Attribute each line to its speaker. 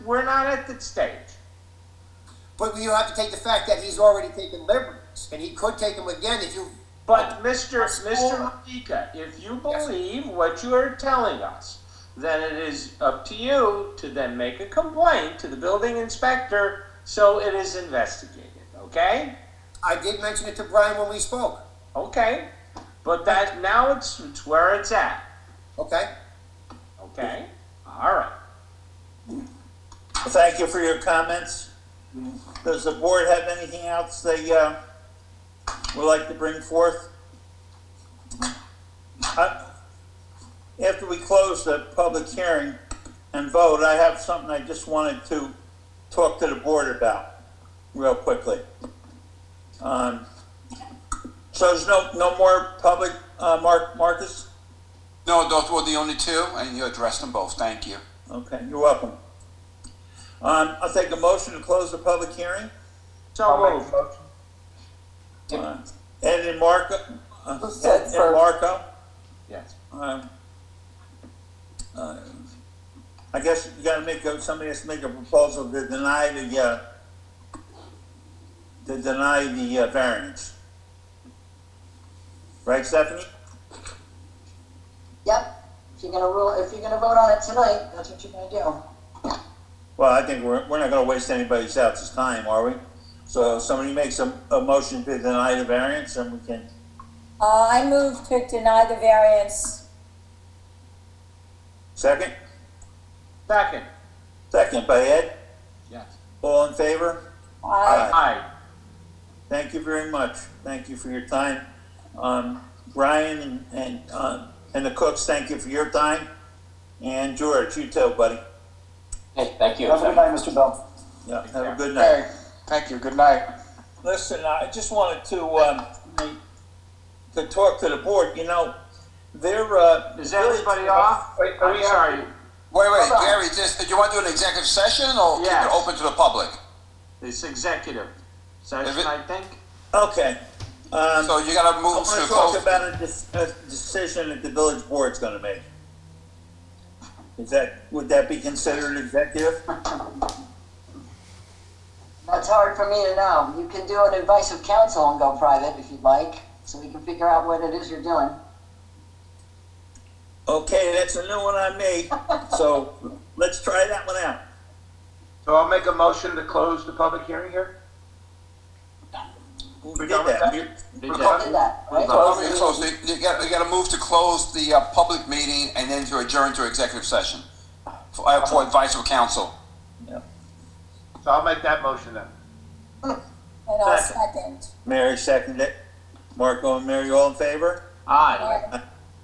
Speaker 1: We're not at that stage.
Speaker 2: But you have to take the fact that he's already taken liberties, and he could take them again if you.
Speaker 1: But Mr. Mr. Malika, if you believe what you are telling us, then it is up to you to then make a complaint to the building inspector so it is investigated, okay?
Speaker 2: I did mention it to Brian when we spoke.
Speaker 1: Okay, but that, now it's, it's where it's at,
Speaker 2: Okay.
Speaker 1: okay? All right.
Speaker 3: Thank you for your comments. Does the board have anything else they, uh, would like to bring forth? I- After we close the public hearing and vote, I have something I just wanted to talk to the board about, real quickly. Um, so there's no, no more public, uh, Mark, Marcus?
Speaker 4: No, those were the only two, and you addressed them both. Thank you.
Speaker 3: Okay, you're welcome. Um, I'll take a motion to close the public hearing.
Speaker 1: So moved.
Speaker 3: Uh, Ed and Marco, uh,
Speaker 5: Who said
Speaker 3: Ed and Marco,
Speaker 1: Yes.
Speaker 3: um, uh, I guess you gotta make, a- somebody has to make a proposal to deny the, uh, to deny the uh, variance. Right, Stephanie?
Speaker 5: Yep, if you're gonna rule, if you're gonna vote on it tonight, that's what you're gonna do.
Speaker 3: Well, I think we're, we're not gonna waste anybody's else's time, are we? So if somebody makes a, a motion to deny the variance, and we can,
Speaker 6: Uh, I move to deny the variance.
Speaker 3: second?
Speaker 1: Second,
Speaker 3: Second by Ed,
Speaker 1: yes.
Speaker 3: all in favor?
Speaker 6: I
Speaker 1: Aye.
Speaker 3: Thank you very much. Thank you for your time. Um, Brian and, and, uh, and the cooks, thank you for your time. And George, you too, buddy.
Speaker 7: Hey, thank you.
Speaker 5: Have a good night, Mr. Bell.
Speaker 3: Yeah, have a good night.
Speaker 4: Hey, thank you. Good night.
Speaker 3: Listen, I just wanted to, um, make- to talk to the board, you know, they're, uh.
Speaker 1: Is everybody off?
Speaker 5: Wait, are
Speaker 1: I'm
Speaker 5: we-
Speaker 1: sorry.
Speaker 4: Wait, wait,
Speaker 5: Hold on.
Speaker 4: Gary, just, do you want to do an executive session or keep
Speaker 1: Oh, Yes.
Speaker 4: it open to the public?
Speaker 1: It's executive session,
Speaker 4: Is it-
Speaker 1: I think.
Speaker 3: Okay, um,
Speaker 4: So you gotta
Speaker 3: I
Speaker 4: move
Speaker 3: wanna
Speaker 4: to
Speaker 3: talk
Speaker 4: close.
Speaker 3: about a, dec- a decision that the village board's gonna make. Is that, would that be considered executive?
Speaker 5: That's hard for me to know. You can do an advice of counsel and go private if you'd like, so we can figure out what it is you're doing.
Speaker 3: Okay, that's a new one on me, so let's try that one out.
Speaker 8: So I'll make a motion to close the public hearing here?
Speaker 3: Who did that? You-
Speaker 1: They
Speaker 8: We're
Speaker 1: did.
Speaker 8: talking-
Speaker 5: Did that, right?
Speaker 4: Tell me to close. You you gotta, you gotta move to close the, uh, public meeting and then to adjourn to executive session for, uh, for advice of counsel.
Speaker 8: So I'll make that motion then.
Speaker 6: And I'll second.
Speaker 3: Mary seconded it. Marco and Mary, all in favor?
Speaker 1: Aye.
Speaker 6: Aye.